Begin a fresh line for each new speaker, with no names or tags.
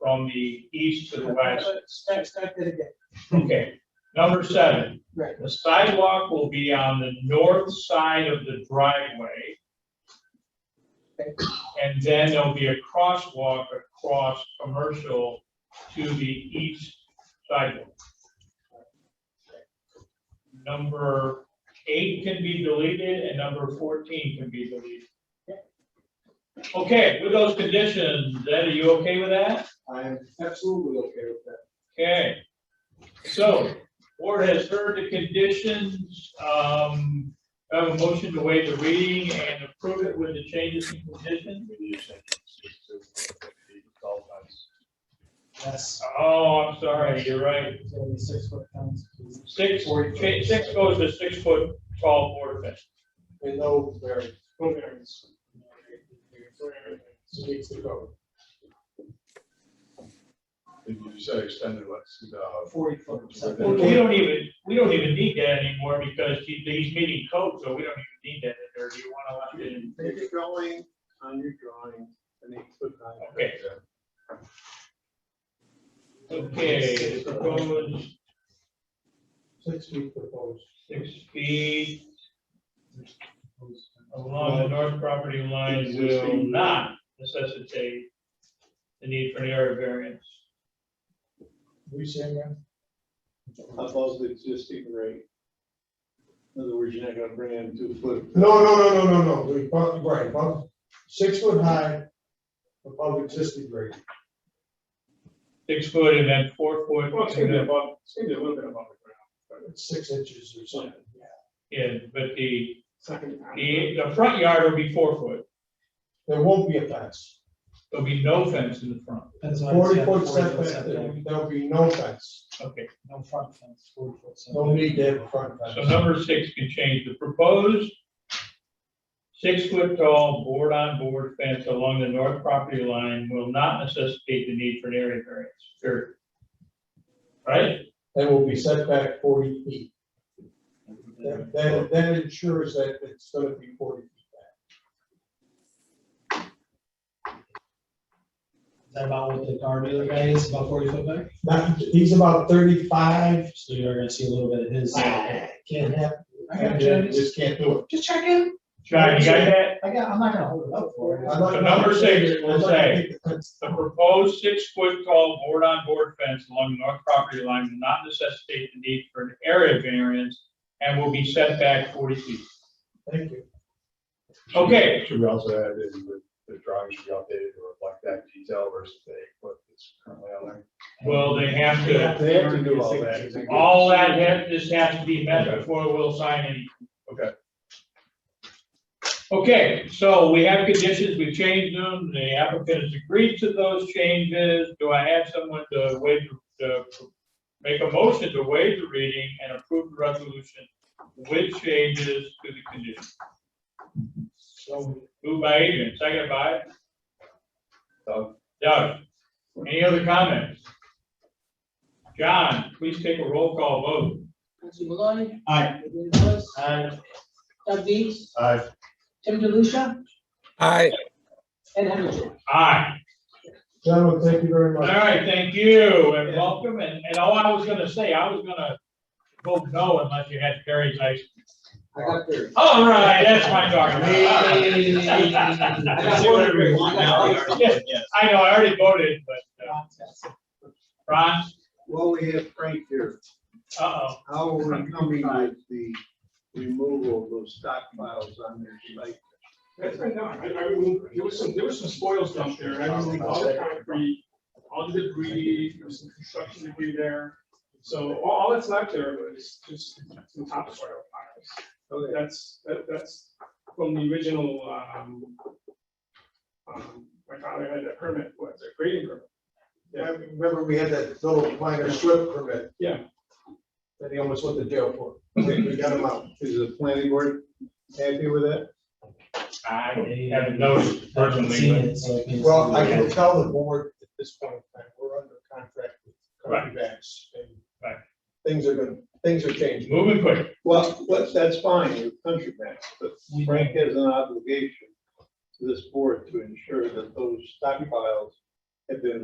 from the east to the west.
Start, start that again,
Okay, number seven.
Right.
The sidewalk will be on the north side of the driveway.
Okay.
And then there'll be a crosswalk across commercial to the east sidewalk. Number eight can be deleted and number fourteen can be deleted. Okay, with those conditions, Ed, are you okay with that?
I am absolutely okay with that.
Okay, so, board has heard the conditions, um, I have a motion to waive the reading and approve it with the changes and conditions.
yes.
Oh, I'm sorry, you're right,
It's gonna be six foot fence, please.
six, cha- six goes to six foot tall board fence.
We know where, who varies. So needs to go.
If you said extended, let's, see, uh,
Forty foot. so-
We don't even, we don't even need that anymore because he- he's meeting code, so we don't even need that in there, do you want to let it in?
Make a drawing on your drawing, an eight foot high.
Okay. Okay, the proposed
Six feet proposed.
six feet along the north property line will not necessitate the need for an area variance.
We saying that? Above the existing rate. In other words, you're not gonna bring in two foot.
No, no, no, no, no, no, we bump, right, bump, six foot high above existing grade.
Six foot and then four foot,
Well, it's gonna be above, it's gonna be a little bit above the ground.
It's six inches or something.
yeah, but the,
Second.
the, the front yard will be four foot.
There won't be a fence.
There'll be no fence in the front.
That's why I
Forty
said
foot
40
setback,
setback.
there'll be no fence.
Okay,
No front fence, forty foot. setback.
No need to have a front
so
fence.
number six can change the proposed six foot tall board on board fence along the north property line will not necessitate the need for an area variance, period. Right?
That will be set back forty feet. That, that, that ensures that it's gonna be forty feet back.
Is that about what the guard dealer guy is, about forty foot back?
Not, he's about thirty-five.
So you're gonna see a little bit of his.
Ah, Can't have,
I got you.
just can't do it.
Just check in.
John, you got that?
I got, I'm not gonna hold it up for
I'm
you.
not-
So number six,
I'm not gonna
say-
take the fence.
The proposed six-foot tall board-on-board fence along the north property line will not necessitate the need for an area variance and will be set back forty feet.
Thank you.
Okay.
Should we also add that the, the drawing should be updated to reflect that detail versus the eight foot that's currently on there?
Well, they have to,
They have to do all that.
all that has, this has to be met before we'll sign any.
Okay.
Okay, so we have conditions, we've changed them, the applicant has agreed to those changes. Do I have someone to waive, to make a motion to waive the reading and approve the resolution with changes to the condition?
So,
Moved by Adrian, second by
Doug?
Doug. Any other comments? John, please take a roll call vote.
Nancy Maloney.
Aye.
Adrian Lewis.
Aye.
Doug Dees.
Aye.
Tim DeLucia.
Aye.
And Henry George.
Aye.
gentlemen, thank you very
All
much.
right, thank you and welcome. And, and all I was gonna say, I was gonna vote no unless you had Terry's ice.
I got there.
All right, that's my talking. about.
I got one. I got one.
I know, I already voted, but, uh, Ron,
Well, we have Frank here.
uh-oh.
How are we coming with the removal of those stockpiles on their site?
That's been done, I, I removed, there was some, there was some spoils dumped there, and I removed all the concrete, all the debris, there was some construction debris there. So all, all that's left there was just some topsoil piles. So
Okay,
That's, that, that's from the original, um, um, my father had that permit, what's it, grading permit?
I remember we had that little minor slip permit.
Yeah.
That he almost went to jail for.
Mm-hmm.
We got him out.
is the planning board happy with that?
I haven't noticed
I haven't seen
personally,
it, so I can't-
Well, I can tell the board at this point in time, we're under contract with Country Vax. and
Right.
Things are gonna, things are
but
changing.
moving quick.
Well, that's, that's fine, you're country man, but
We-
Frank has an obligation to this board to ensure that those stockpiles have been